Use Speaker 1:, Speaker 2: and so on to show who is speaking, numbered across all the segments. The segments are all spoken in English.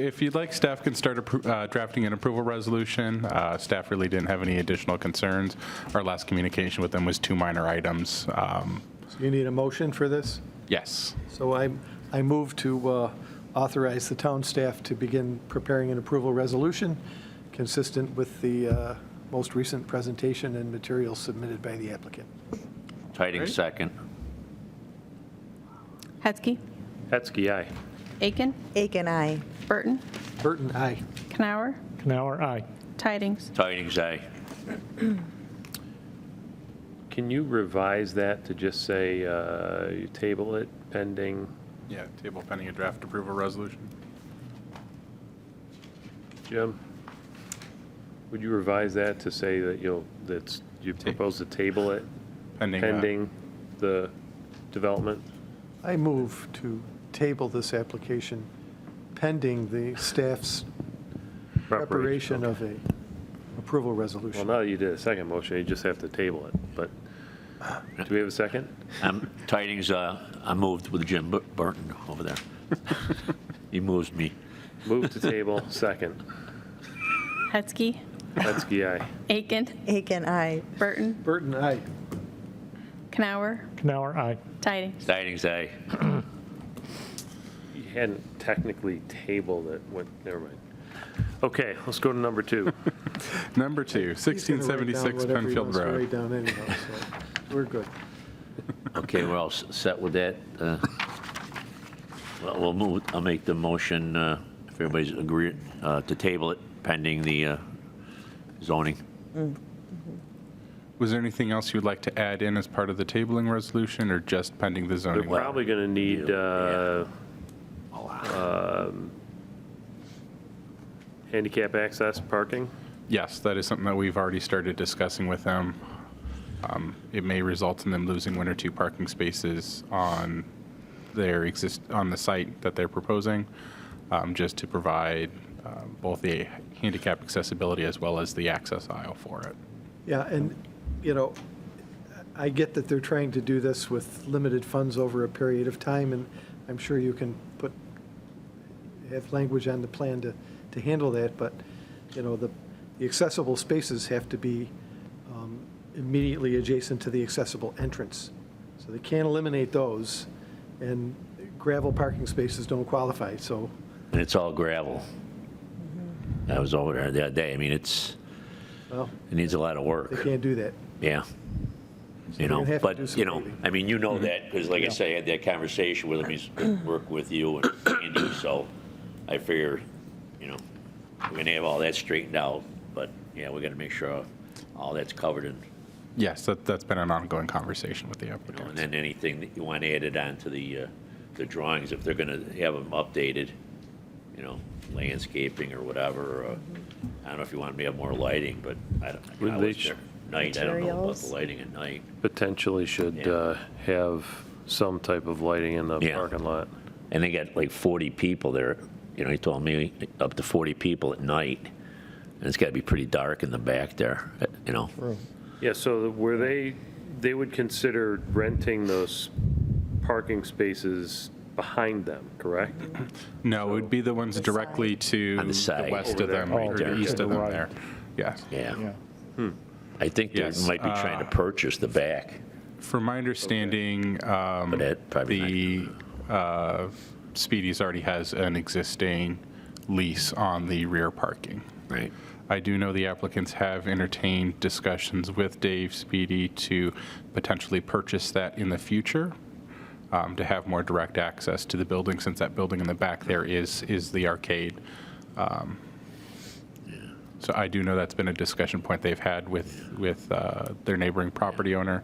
Speaker 1: If you'd like, staff can start appro- uh, drafting an approval resolution. Uh, Staff really didn't have any additional concerns. Our last communication with them was two minor items. Um,
Speaker 2: You need a motion for this?
Speaker 1: Yes.
Speaker 2: So I, I move to uh, authorize the town staff to begin preparing an approval resolution consistent with the uh, most recent presentation and materials submitted by the applicant.
Speaker 3: Tiding
Speaker 1: Great.
Speaker 3: second.
Speaker 4: Hetzke.
Speaker 5: Hetzke, aye.
Speaker 4: Aiken.
Speaker 6: Aiken, aye.
Speaker 4: Burton.
Speaker 2: Burton, aye.
Speaker 4: Canower.
Speaker 5: Canower, aye.
Speaker 4: Tidings.
Speaker 3: Tidings, aye.
Speaker 5: Can you revise that to just say, uh, you table it pending?
Speaker 1: Yeah, table pending a draft approval resolution.
Speaker 5: Jim, would you revise that to say that you'll, that's, you propose to table it
Speaker 1: Pending. uh,
Speaker 5: pending the development?
Speaker 2: I move to table this application pending the staff's preparation of a approval
Speaker 5: Well,
Speaker 2: resolution.
Speaker 5: now that you did a second motion, you just have to table it, but do we have a second?
Speaker 3: Um, Tidings, uh, I moved with Jim Bur- Burton over there. He moves me.
Speaker 5: Move to table, second.
Speaker 4: Hetzke.
Speaker 5: Hetzke, aye.
Speaker 4: Aiken.
Speaker 6: Aiken, aye.
Speaker 4: Burton.
Speaker 2: Burton, aye.
Speaker 4: Canower.
Speaker 7: Canower, aye.
Speaker 4: Tidings.
Speaker 3: Tidings, aye.
Speaker 5: You hadn't technically tabled it, what, never mind. Okay, let's go to number two.
Speaker 1: Number two,
Speaker 2: He's gonna write down
Speaker 1: 1676
Speaker 2: whatever he
Speaker 1: Penfield
Speaker 2: wants to
Speaker 1: Road.
Speaker 2: write down anyhow, so we're good.
Speaker 3: Okay, we're all s- set with that. uh, Well, we'll move, I'll make the motion, uh, if everybody's agree, uh, to table it pending the uh, zoning.
Speaker 1: Was there anything else you'd like to add in as part of the tabling resolution or just pending the
Speaker 5: They're
Speaker 1: zoning?
Speaker 5: probably going to need uh, um, handicap access parking.
Speaker 1: Yes, that is something that we've already started discussing with them. Um, It may result in them losing one or two parking spaces on their exist, on the site that they're proposing, um, just to provide uh, both the handicap accessibility as well as the access aisle for it.
Speaker 2: Yeah, and, you know, I get that they're trying to do this with limited funds over a period of time, and I'm sure you can put, have language on the plan to, to handle that, but, you know, the the accessible spaces have to be um, immediately adjacent to the accessible entrance. So they can't eliminate those, and gravel parking spaces don't qualify, so,
Speaker 3: And it's all gravel. I was over there the other day. I mean, it's,
Speaker 2: well,
Speaker 3: it needs a lot of work.
Speaker 2: they can't do that.
Speaker 3: Yeah. You
Speaker 2: we're
Speaker 3: know,
Speaker 2: gonna have to do
Speaker 3: but,
Speaker 2: some
Speaker 3: you know,
Speaker 2: reading.
Speaker 3: I mean, you know that, because like I say, I had that conversation with him, he's worked with you and Andy, so I figure, you know, we're gonna have all that straightened out, but, yeah, we gotta make sure all that's covered and,
Speaker 1: Yes, that, that's been an ongoing conversation with the
Speaker 3: you know, and
Speaker 1: applicant.
Speaker 3: then anything that you want added on to the, uh, the drawings, if they're gonna have them updated, you know, landscaping or whatever, or, uh, I don't know if you want me to have more lighting, but I don't, I
Speaker 5: Would they
Speaker 3: was
Speaker 5: sh-
Speaker 3: there at night, I don't know about the
Speaker 6: Materials?
Speaker 3: lighting at night.
Speaker 5: Potentially should
Speaker 3: Yeah.
Speaker 5: uh, have some type of lighting in the
Speaker 3: Yeah.
Speaker 5: parking lot.
Speaker 3: And they got like 40 people there. You know, he told me up to 40 people at night. And it's got to be pretty dark in the back there, uh, you know.
Speaker 5: Yeah, so were they, they would consider renting those parking spaces behind them, correct?
Speaker 1: No, it would be the ones directly to
Speaker 3: On the
Speaker 1: the
Speaker 3: side.
Speaker 1: west
Speaker 5: Over
Speaker 1: of
Speaker 5: there,
Speaker 1: them,
Speaker 5: right
Speaker 1: or
Speaker 3: there.
Speaker 1: the east
Speaker 7: To
Speaker 1: of
Speaker 7: the
Speaker 1: them
Speaker 7: right.
Speaker 1: there. Yes.
Speaker 3: Yeah.
Speaker 7: Yeah.
Speaker 3: I think they
Speaker 1: Yes, uh,
Speaker 3: might be trying to purchase the back,
Speaker 1: From my understanding, um,
Speaker 3: but that probably
Speaker 1: The uh, Speedy's already has an existing lease on the rear parking.
Speaker 3: not. Right.
Speaker 1: I do know the applicants have entertained discussions with Dave Speedy to potentially purchase that in the future, um, to have more direct access to the building, since that building in the back there is, is the arcade. Um, So I do know that's been a discussion point they've had with, with uh, their neighboring property owner,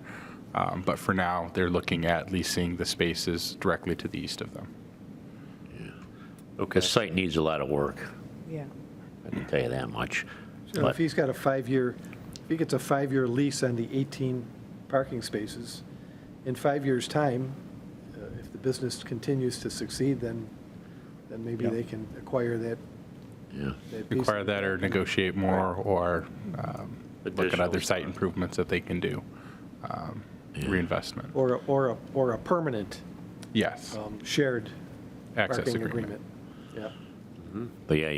Speaker 1: Um, but for now, they're looking at leasing the spaces directly to the east of them.
Speaker 3: The site needs a lot of work.
Speaker 6: Yeah.
Speaker 3: I can tell you that much.
Speaker 2: You know, If he's got a five-year, if he gets a five-year lease on the 18 parking spaces, in five years' time, uh, if the business continues to succeed, then, then maybe they can acquire that.
Speaker 3: Yeah.
Speaker 2: that piece.
Speaker 1: Require that or negotiate more or um, look at
Speaker 5: Additional
Speaker 1: other site
Speaker 5: stuff.
Speaker 1: improvements that they can do. um, Reinvestment.
Speaker 2: Or, a- or, a or a permanent
Speaker 1: Yes,
Speaker 2: um, shared
Speaker 1: access
Speaker 2: parking
Speaker 1: agreement.
Speaker 2: agreement. Yeah.
Speaker 3: But yeah, you